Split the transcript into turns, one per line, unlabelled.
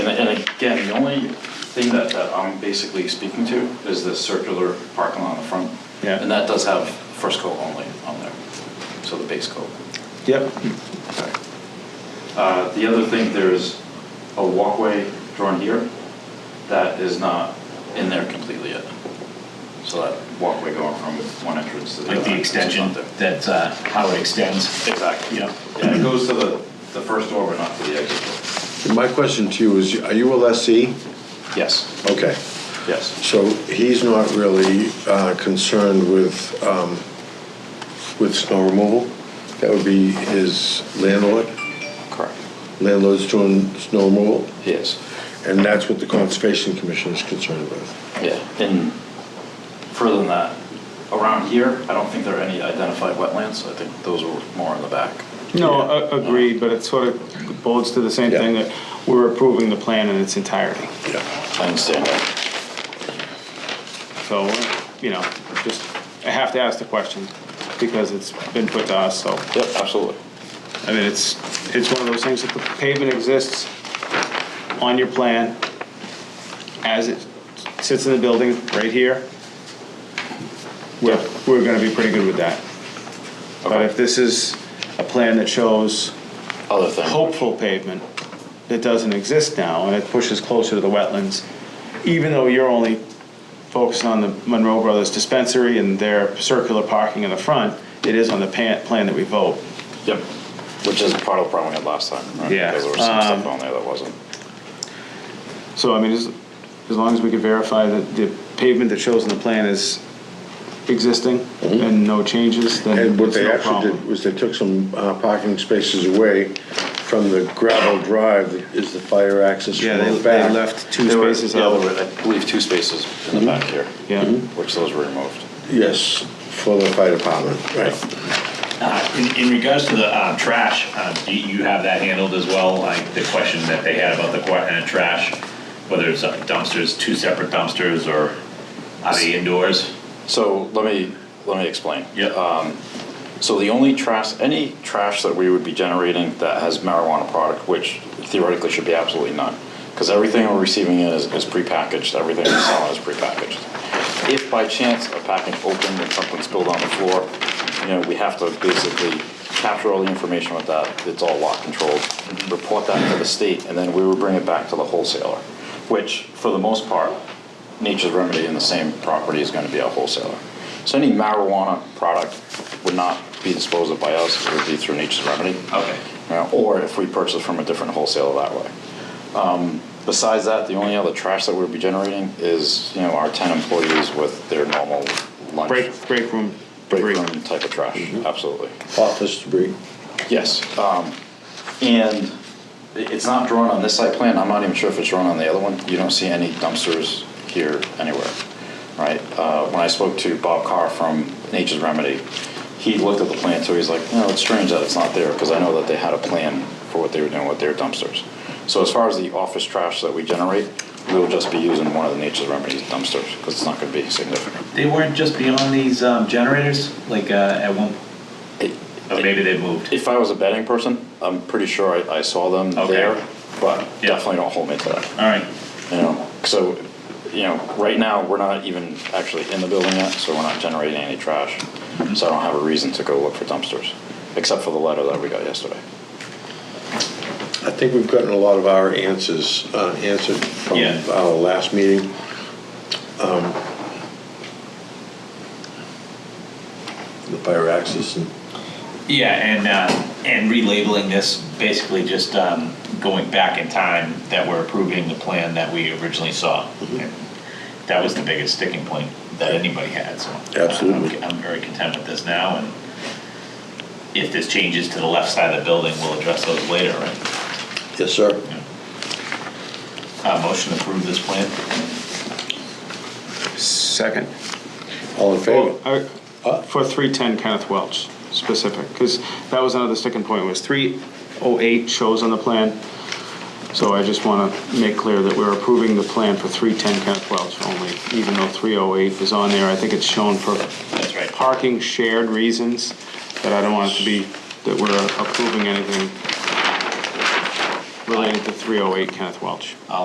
Again, the only thing that, that I'm basically speaking to is the circular parking lot on the front.
Yeah.
And that does have first coat only on there, so the base coat.
Yep.
Uh, The other thing, there is a walkway drawn here that is not in there completely yet. So that walkway going from one entrance to the other.
Like the
entrance is not
extension,
there.
that's uh, how it extends.
Exactly.
Yeah.
Yeah, it goes to the, the first door, but not to the exit door.
My question to you is, are you a lessee?
Yes,
Okay,
yes.
so he's not really uh, concerned with, um, with snow removal? That would be his landlord?
Correct.
Landlord's doing snow removal?
Yes.
And that's what the Conservation Commission is concerned with?
Yeah, and further than that, around here, I don't think there are any identified wetlands. I think those were more in the back.
No, a- agreed, but it sort of boils to the same
Yeah.
thing that we're approving the plan in its entirety.
Yeah.
I understand that.
So, you know, just, I have to ask the question because it's been put to us, so.
Yep, absolutely.
I mean, it's, it's one of those things that the pavement exists on your plan as it sits in the building right here. We're, we're gonna be pretty good with that. But
Okay.
if this is a plan that shows
Other thing.
hopeful pavement that doesn't exist now and it pushes closer to the wetlands, even though you're only focusing on the Monroe Brothers dispensary and their circular parking in the front, it is on the pan, plan that we vote.
Yep, which is part of the problem we had last time, right?
Yeah,
Because there was some
um,
stuff on there that wasn't.
So, I mean, as, as long as we can verify that the pavement that shows in the plan is existing and no changes, then
Mm-hmm. And what
it's
they
no
actually did
problem.
was they took some uh, parking spaces away from the gravel drive that is the fire access
Yeah, they,
road
they
back.
left two
There were-
spaces
Yeah,
out.
there were, I believe, two spaces in the back here.
Yeah.
Mm-hmm.
Mhm.
Which those were removed.
Yes, for the fire department, right.
Uh, In in regards to the uh, trash, uh, do you have that handled as well? Like the question that they had about the qu- uh, trash, whether it's uh, dumpsters, two separate dumpsters, or are they indoors?
So let me, let me explain.
Yep.
So the only trash, any trash that we would be generating that has marijuana product, which theoretically should be absolutely none, because everything we're receiving in is, is prepackaged, everything we're selling is prepackaged. If by chance a package opened and something spilled on the floor, you know, we have to basically capture all the information with that, it's all lot controlled, report that to the state, and then we would bring it back to the wholesaler, which, for the most part, Nature's Remedy in the same property is going to be a wholesaler. So any marijuana product would not be disposed of by us, it would be through Nature's Remedy.
Okay.
You know, Or if we purchase from a different wholesaler that way. Um, Besides that, the only other trash that we'd be generating is, you know, our 10 employees with their normal lunch.
Break, break Mm-hmm. room
break
debris.
room type of trash, absolutely.
Office debris.
Yes, um, and i- it's not drawn on this site plan, I'm not even sure if it's drawn on the other one, you don't see any dumpsters here anywhere, right? Uh, when I spoke to Bob Carr from Nature's Remedy, he looked at the plan too, he's like, no, it's strange that it's not there, because I know that they had a plan for what they were doing with their dumpsters. So as far as the office trash that we generate, we'll just be using one of the Nature's Remedy's dumpsters, because it's not gonna be significant.
They weren't just beyond these um, generators, like uh, at one, or Oh, maybe they moved.
If I was a betting person, I'm pretty sure I, I saw them
Okay.
there, but
Yeah.
definitely don't hold me to that.
All right,
You know, so, you know, right now, we're not even actually in the building yet, so we're not generating any trash.
Mm-hmm.
So I don't have a reason to go look for dumpsters, except for the letter that we got yesterday.
I think we've gotten a lot of our answers, uh, answered from
Yeah.
our last meeting. Um, The fire access and,
Yeah, and, uh, and relabeling this, basically just, um, going back in time that we're approving the plan that we originally saw. And That was the biggest sticking point that anybody had, so.
Absolutely.
I'm I'm very content with this now, and if this changes to the left side of the building, we'll address those later, right?
yes, sir.
Uh, motion to approve this plan?
Second.
All in favor?
Well, I- For 310 Kenneth Welch specific, because that was another sticking point, was 308 shows on the plan. So I just want to make clear that we're approving the plan for 310 Kenneth Welch only, even though 308 is on there. I think it's shown for
That's right.
parking shared reasons, but I don't want it to be that we're approving anything related to 308 Kenneth Welch.